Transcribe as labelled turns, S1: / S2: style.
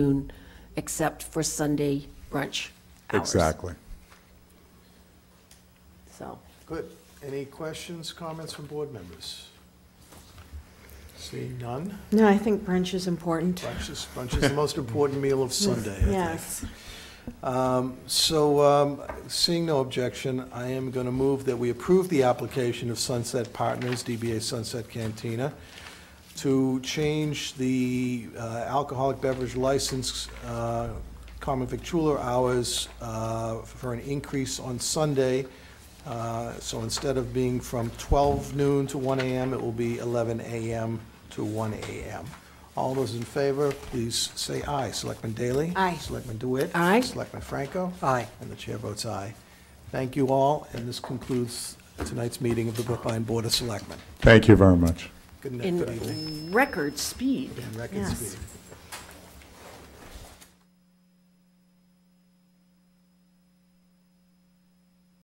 S1: noon, except for Sunday brunch hours.
S2: Exactly.
S1: So,
S3: Good. Any questions, comments from board members? Seeing none.
S4: No, I think brunch is important.
S3: Brunch is, brunch is the most important meal of Sunday, I think.
S4: Yes.
S3: Um, So, um, seeing no objection, I am going to move that we approve the application of Sunset Partners, DBA Sunset Cantina, to change the uh, alcoholic beverage license, uh, common victualler hours, uh, for an increase on Sunday. Uh, So instead of being from 12 noon to 1 AM, it will be 11 AM to 1 AM. All those in favor, please say aye. Selectman Daley?
S4: Aye.
S3: Selectman DeWitt?
S1: Aye.
S3: Selectman Franco? Aye. And the chair votes aye. Thank you all, and this concludes tonight's meeting of the Brookline Board of Selectmen.
S2: Thank you very much.
S3: Good night, good evening.
S1: in record speed.
S3: In record
S4: Yes.
S3: speed.